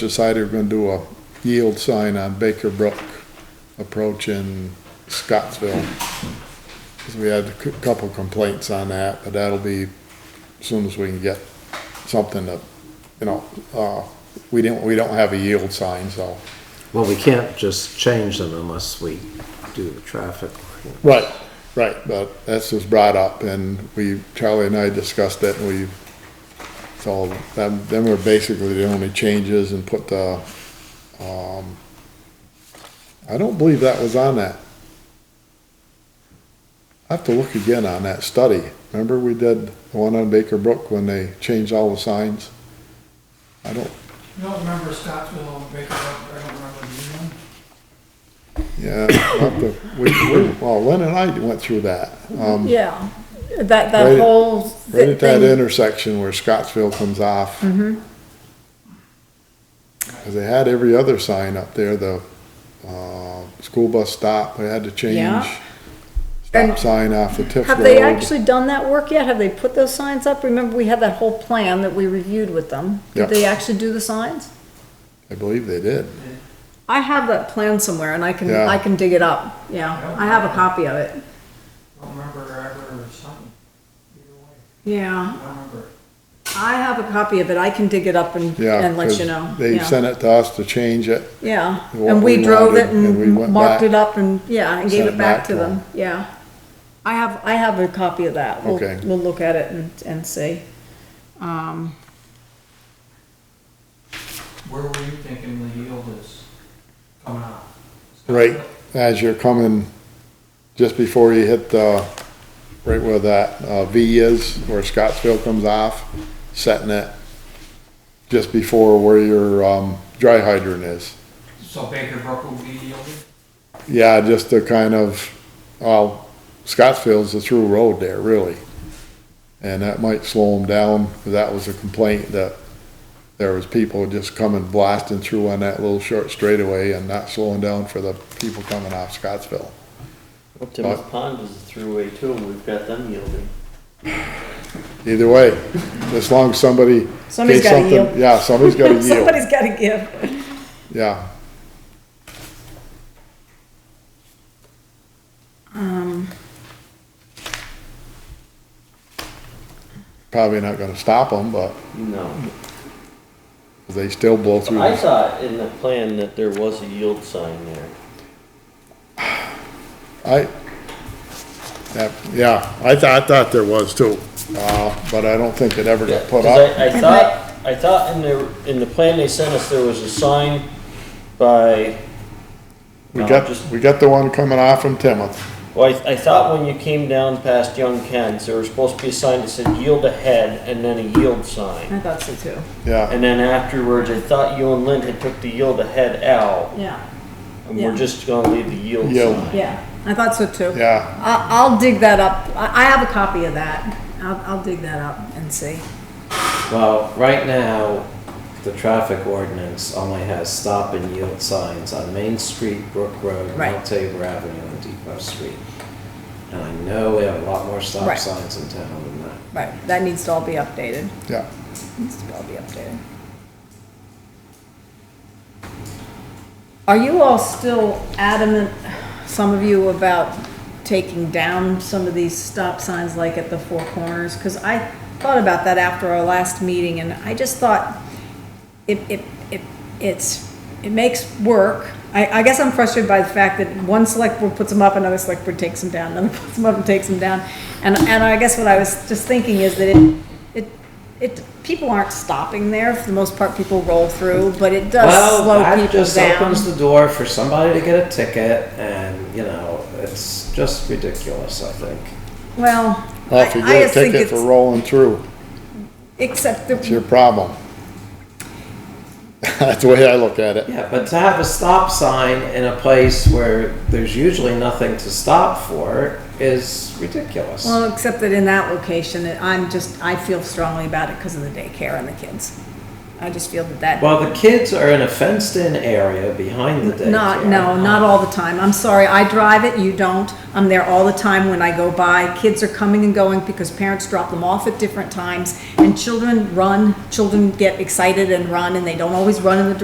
decided we're gonna do a yield sign on Baker Brook approach in Scottsville. 'Cause we had a cou- couple complaints on that, but that'll be as soon as we can get something that, you know, uh, we didn't, we don't have a yield sign, so. Well, we can't just change them unless we do the traffic. Right, right, but that's was brought up and we, Charlie and I discussed it and we, so them, them were basically the only changes and put the, um, I don't believe that was on that. I have to look again on that study. Remember we did the one on Baker Brook when they changed all the signs? I don't, You don't remember Scottsville and Baker Brook, I don't remember the new yeah, one. I'll have to- we, we, well, Lynn and I went through that. Um, Yeah, that, Right that at- whole thi- Right at that thing, Mm-hmm. intersection where Scottsville comes off. Cause they had every other sign up there, the, uh, school bus stop, they had to change. Yeah. Stop And sign off the Tiff Road. have they actually done that work yet? Have they put those signs up? Remember, we had that whole plan that we reviewed with them. Yeah. Did they actually do the signs? I believe they did. I have that plan somewhere and I can, Yeah. I can dig it up, yeah, I have a copy of it. I don't remember ever or something. Either way, Yeah, I don't remember. I have a copy of it, I can dig it up and, Yeah. and let 'cause you know, They yeah. sent it to us to change it. Yeah, what and we we drove it wanted, and we went and marked back. it up and, yeah, and gave Sent it back to them, them. yeah. I have, I have a copy of that, we'll, Okay. we'll look at it and, and see. Um, Where were you thinking the yield is coming out? Right, as you're coming, just before you hit the, right where that, uh, V is, where Scottsville comes off, setting it just before where your, um, dry hydrant is. So Baker Brook will be yielding? Yeah, just to kind of, well, Scottsville's a through road there, really. And that might slow them down, 'cause that was a complaint that there was people just coming blasting through on that little short straightaway and not slowing down for the people coming off Scottsville. Well, Tim's Pond is a throughway too, and we've got them yielding. Either way, as long as somebody. Somebody's gets gotta something- yield. Yeah, somebody's gotta yield, Somebody's gotta give. yeah. Um. Probably not gonna stop them, but No. they still blow through. I the- saw in the plan that there was a yield sign there. I, that, yeah, I thought, I thought there was too, uh, but I don't think it ever got put 'Cause up. I, I thought, I thought in the, in the plan they sent us, there was a sign by. We No, got, just- we got the one coming off from Timoth. Well, I, I thought when you came down past Young Ken's, there was supposed to be a sign that said yield ahead and then a yield sign. I thought so too. yeah. And then afterwards, I thought you and Lynn had took the yield ahead out, Yeah, and we're Yeah. just gonna leave the yield Yield. sign. yeah, I thought so too. Yeah, I, I'll dig that up. I, I have a copy of that. I'll, I'll dig that up and see. Well, right now, the traffic ordinance only has stop and yield signs on Main Street, Brook Road, Right. Mount Tabor Avenue, and Depot Street. And I know we have a lot more stop Right. signs in town than that. Right, that needs to all be updated. yeah. Needs to all be updated. Are you all still adamant, some of you, about taking down some of these stop signs like at the Four Corners? Because I thought about that after our last meeting and I just thought it, it, it, it's, it makes work. I, I guess I'm frustrated by the fact that one select board puts them up, another select board takes them down, another puts them up and takes them down. And, and I guess what I was just thinking is that it, it, it, people aren't stopping there, for the most part, people roll through, but it does Well, slow that people just down. opens the door for somebody to get a ticket, and, you know, it's just ridiculous, I think. Well, Well, I, if you I get a just think ticket for it's, rolling through, except it's your that, problem. That's the way I look at it. Yeah, but to have a stop sign in a place where there's usually nothing to stop for is ridiculous. well, except that in that location, that I'm just, I feel strongly about it because of the daycare and the kids. I just feel that that. Well, the kids are in a fenced-in area behind the daycare. Not, no, not all the time. I'm sorry, I drive it, you don't. I'm there all the time when I go by. Kids are coming and going because parents drop them off at different times. And children run, children get excited and run, and they don't always run in the